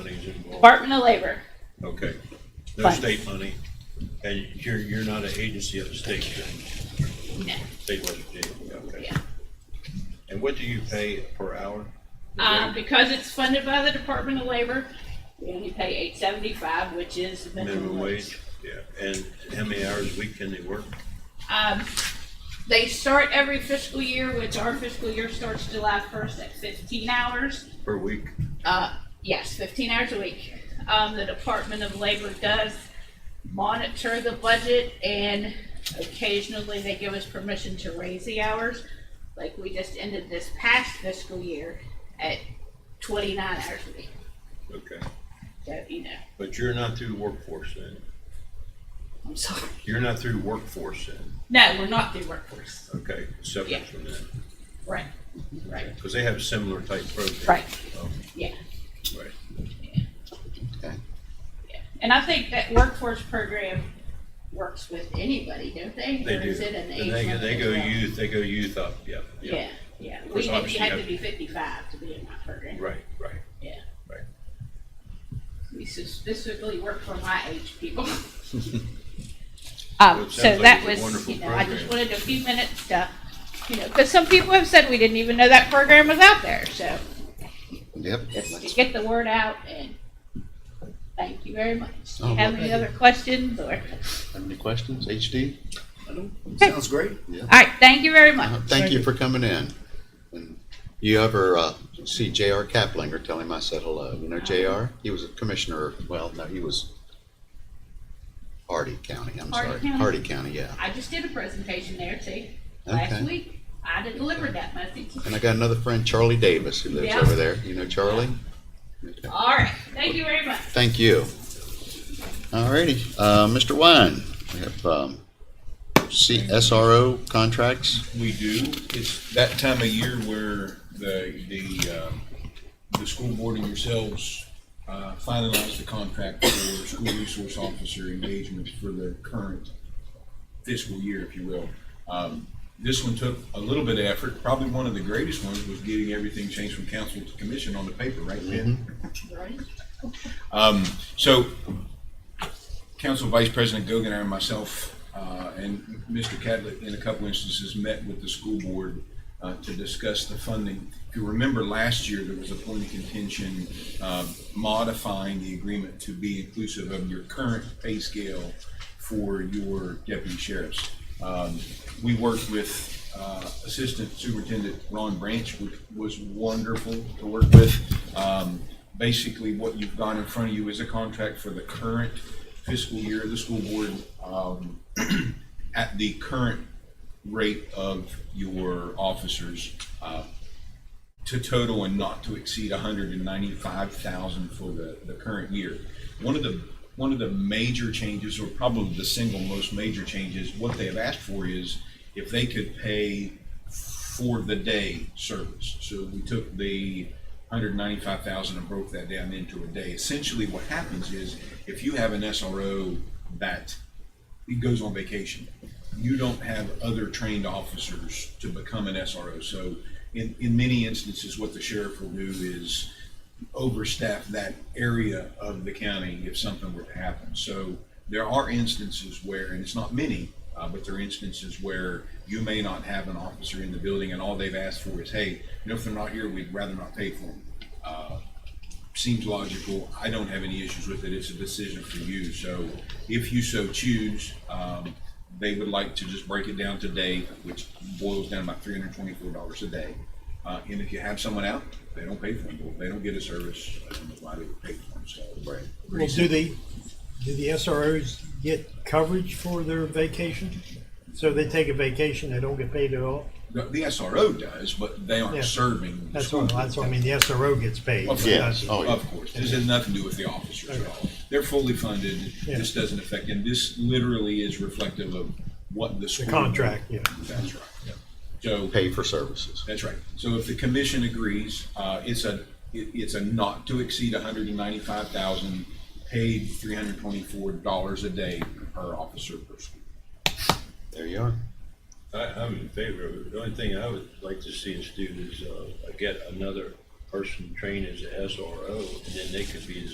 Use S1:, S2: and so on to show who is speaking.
S1: Department of Labor.
S2: Okay, they're
S1: Fine.
S2: state money, and you're, you're not an agency of the state, then?
S1: No.
S2: state West Virginia, okay.
S1: Yeah.
S2: And what do you pay per hour?
S1: Uh, because it's funded by the Department of Labor, we only pay eight seventy-five, which is the
S2: Minimum wage, yeah, and how many hours a week can they work?
S1: Um, they start every fiscal year, which our fiscal year starts July first at fifteen hours.
S2: Per week?
S1: Uh, yes, fifteen hours a week. Um, the Department of Labor does monitor the budget and occasionally they give us permission to raise the hours. Like we just ended this past fiscal year at twenty-nine hours a week,
S2: Okay,
S1: so, you know,
S2: but you're not through workforce then?
S1: I'm sorry.
S2: You're not through workforce then?
S1: No, we're not through workforce.
S2: Okay,
S1: Yeah.
S2: separate from that,
S1: Right, right,
S2: because they have a similar type program.
S1: Right.
S2: Oh,
S1: yeah.
S2: Right.
S1: And I think that workforce program works with anybody, don't they?
S2: They
S1: Or
S2: do.
S1: is it an age
S2: And they, go-
S1: limit
S2: they
S1: as
S2: go
S1: well?
S2: youth, they go youth up, yeah, yeah.
S1: Yeah, yeah.
S2: course,
S1: We had,
S2: obviously
S1: you
S2: you
S1: had to
S2: have-
S1: be fifty-five to be in my program.
S2: Right, right,
S1: Yeah.
S2: right.
S1: We specifically work for my age people.
S2: Well,
S1: Um,
S2: it
S1: so
S2: sounds like
S1: that
S2: it's a
S1: was,
S2: wonderful
S1: you know, I just
S2: program.
S1: wanted a few minutes to, you know, because some people have said we didn't even know that program was out there, so
S3: Yep.
S1: just to get the word out and thank you very much. Do
S3: Oh,
S1: you have
S3: well,
S1: any
S3: thank
S1: other questions or?
S3: Have any questions, HD?
S4: Sounds great.
S1: All right, thank you very much.
S3: Uh, Thank you for coming in. And You ever uh, see J.R. Kaplinger, tell him I said hello. You know J.R.? He was a commissioner, well, no, he was Hardy County, I'm
S1: Hardy
S3: sorry.
S1: County.
S3: Hardy County, yeah.
S1: I just did a presentation there too, last
S3: Okay.
S1: week. I delivered that message.
S3: And I got another friend, Charlie Davis, who lives
S1: Yeah.
S3: over there. You know Charlie? Okay.
S1: All right, thank you very much.
S3: Thank you. All righty, uh, Mr. Wine, we have um, C- SRO contracts.
S5: We do. It's that time of year where the, the, um, the school board and yourselves uh, finalize the contract for school resource officer engagement for the current fiscal year, if you will. Um, This one took a little bit of effort. Probably one of the greatest ones was getting everything changed from council to commission on the paper, right, Ben? So, Council Vice President Gogan and myself, uh, and Mr. Cadlick, in a couple instances, met with the school board uh, to discuss the funding. If you remember last year, there was a point of contention uh, modifying the agreement to be inclusive of your current pay scale for your deputy sheriffs. Um, We worked with uh, Assistant Superintendent Ron Branch, which was wonderful to work with. Um, Basically, what you've got in front of you is a contract for the current fiscal year. The school board um, at the current rate of your officers uh, to total and not to exceed hundred and ninety-five thousand for the, the current year. One of the, one of the major changes, or probably the single most major changes, what they have asked for is if they could pay for the day service. So we took the hundred ninety-five thousand and broke that down into a day. Essentially, what happens is if you have an SRO that he goes on vacation. You don't have other trained officers to become an SRO. So in, in many instances, what the sheriff will do is overstaff that area of the county if something were to happen. So there are instances where, and it's not many, uh, but there are instances where you may not have an officer in the building and all they've asked for is, hey, you know, if they're not here, we'd rather not pay for them seems logical. I don't have any issues with it. It's a decision for you. So if you so choose, um, they would like to just break it down today, which boils down about three hundred twenty-four dollars a day. Uh, and if you have someone out, they don't pay for them. Well, They don't get a service. I don't know why they would pay for them. So. Right.
S6: Well, do the, do the SROs get coverage for their vacation? So they take a vacation, they don't get paid at all?
S5: The, the SRO does, but they aren't
S6: Yeah.
S5: serving. the
S6: That's
S5: school
S6: what, that's what I
S5: board.
S6: mean, the SRO gets paid.
S5: Of
S3: Yeah.
S5: course,
S3: Oh,
S5: of course. This has nothing to do with the officers at all. They're fully funded.
S6: Yeah.
S5: This doesn't affect them. This literally is reflective of what the
S6: The
S5: school.
S6: contract, yeah.
S5: That's right. So,
S3: Pay for services.
S5: that's right. So if the commission agrees, uh, it's a, it, it's a not to exceed hundred and ninety-five thousand, paid three hundred twenty-four dollars a day per officer per school.
S3: There you are.
S2: I, I'm in favor of it. The only thing I would like to see us do is, uh, get another person trained as a SRO, and then they could be the